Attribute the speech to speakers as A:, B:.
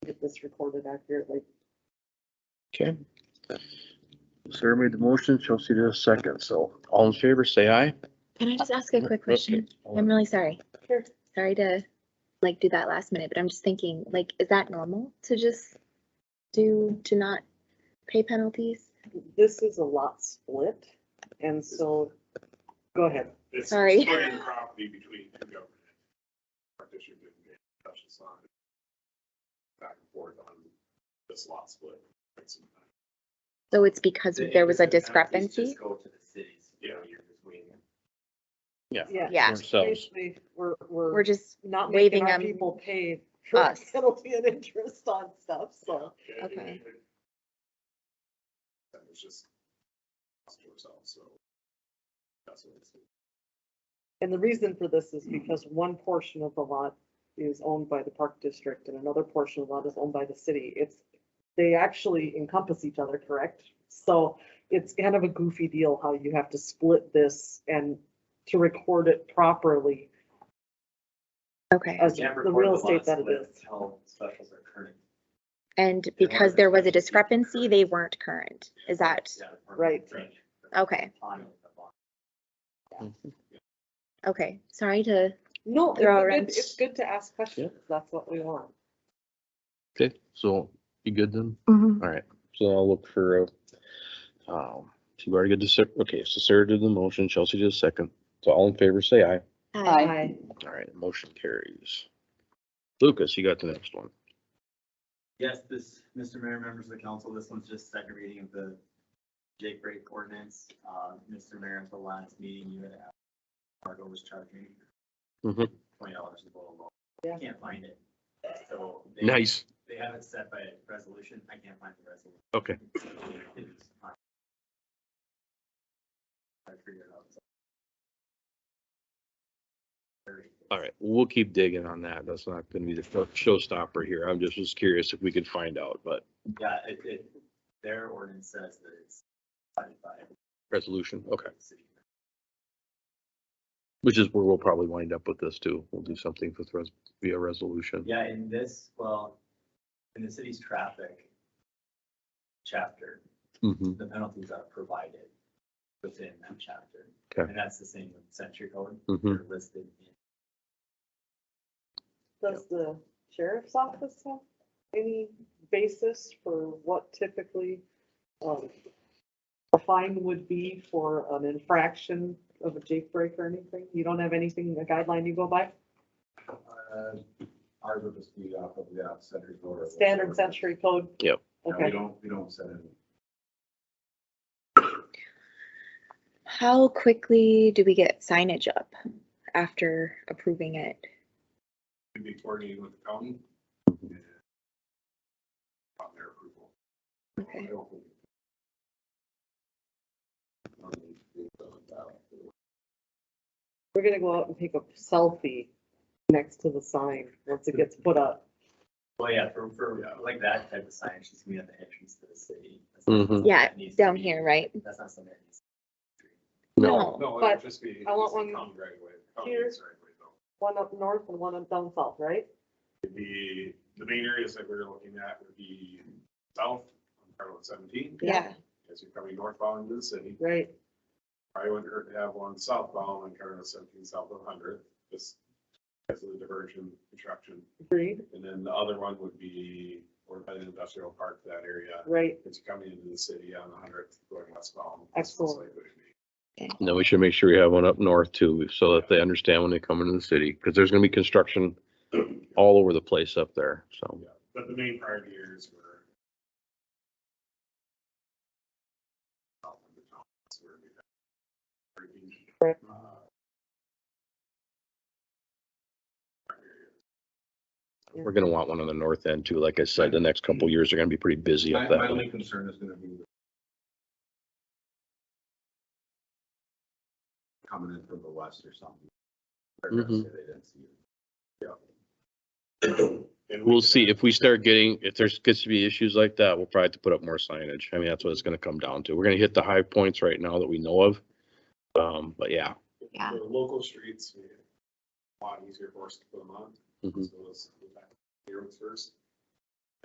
A: it's recorded accurately.
B: Okay,
C: Sarah made the motion, Chelsea did a second, so.
B: all in favor, say aye.
D: Can I just ask a quick question? I'm really sorry.
A: Sure.
D: Sorry to like do that last minute, but I'm just thinking, like, is that normal to just do, to not pay penalties?
A: This is a lot split, and so, go ahead.
E: It's
D: Sorry.
E: splitting property between two government. Our district didn't get touched on back and forth on this lot split.
D: So it's because there was a discrepancy?
F: Go to the cities.
E: Yeah.
D: Yeah.
B: Ourselves.
A: Basically, we're,
D: We're
A: we're
D: just,
A: not making
D: waiving
A: our
D: them-
A: people pay for
D: us.
A: penalty and interest on stuff, so.
D: Okay.
E: That was just us to ourselves, so. That's what it's.
A: And the reason for this is because one portion of the lot is owned by the park district and another portion of the lot is owned by the city. It's, they actually encompass each other, correct? So it's kind of a goofy deal how you have to split this and to record it properly
D: okay.
A: as the real estate that it is.
F: Until specials are current.
D: And
F: There
D: because
F: were
D: there was a
F: discrepancies.
D: discrepancy, they weren't current. Is that,
F: Yeah, or
A: Right.
F: change the
D: Okay.
F: time of the bond.
D: okay, sorry to,
A: No, it's
D: They're all
A: good,
D: around.
A: it's good to ask questions. That's what we want.
B: Okay, so you good then?
D: Mm-hmm.
B: All right, so I'll look for, a, um, so you already got the, sec- okay, so Sarah did the motion, Chelsea did a second. So all in favor, say aye.
D: Hi.
A: Aye.
B: All right, motion carries. Lucas, you got the next one.
F: Yes, this, Mr. Mayor, members of the council, this one's just second reading of the Jake break ordinance. Uh, Mr. Mayor, at the last meeting, you had asked, Fargo was charging
B: Mhm.
F: twenty dollars a bottle.
A: Yeah.
F: Can't find it. So they-
B: Nice.
F: They have it set by resolution. I can't find the resolution.
B: Okay,
F: I figured it out.
B: all right, we'll keep digging on that. That's not gonna be the first showstopper here. I'm just was curious if we could find out, but
F: Yeah, it, it, their ordinance says that it's decided by
B: resolution, okay.
F: the city.
B: Which is where we'll probably wind up with this too. We'll do something with res, via resolution.
F: Yeah, in this, well, in the city's traffic chapter,
B: Mhm.
F: the penalties are provided within that chapter.
B: Okay.
F: And that's the same with century code,
B: Mhm.
F: they're listed in
A: Does the sheriff's office have any basis for what typically um, a fine would be for an infraction of a jake break or anything? You don't have anything, a guideline you go by?
E: Uh, ours would just be off of the uh, century order.
A: Standard century code?
B: Yep.
E: Yeah, We
A: Okay,
E: don't, we don't set any.
D: how quickly do we get signage up after approving it?
E: We'd be coordinating with the county. and On their approval.
D: Okay.
E: I don't think- Um,
A: we're gonna go out and take a selfie next to the sign once it gets put up.
F: Well, yeah, for, for like that type of sign, she's gonna be at the entrance to the city. That's not
B: Mhm.
F: something
D: Yeah,
F: that needs to
D: Down
F: be-
D: here, right?
F: That's not something. that needs to be-
E: No,
A: But
E: it'd just be.
A: I want
E: it's a
A: one
E: county right away. County
A: here.
E: is right away, though.
A: One up north and one up down south, right?
E: It'd be, the main areas that we're looking at would be south on Carroll seventeen,
A: Yeah.
E: as you're coming northbound into the city.
A: Right,
E: Probably wouldn't hurt to have one southbound on Carroll seventeen, south of hundred, just because of the diversion construction.
A: agreed,
E: And then the other one would be, or by the industrial park, that area,
A: right.
E: it's coming into the city on hundredth going westbound.
A: Excellent.
B: And Then we should make sure we have one up north too, so that they understand when they come into the city, because there's gonna be construction all over the place up there, so.
E: Yeah, But the main priority areas were. south of the town, that's where we had-
A: Right.
E: uh, priority
B: We're gonna want one on the north end too, like I said, the next couple of years are gonna be pretty busy
E: My,
B: up
E: my
B: that
E: only
B: way.
E: concern is gonna be. Coming in from the west or something. They're gonna
B: Mhm.
E: say they didn't see it. And we
B: We'll
E: could
B: see,
E: have-
B: if we start getting, if there's gets to be issues like that, we'll probably have to put up more signage. I mean, that's what it's gonna come down to. We're gonna hit the high points right now that we know of. Um, but yeah,
D: Yeah.
E: The local streets, we- a lot easier for us to put them on.
B: Mhm.
E: So let's go back to the roads first.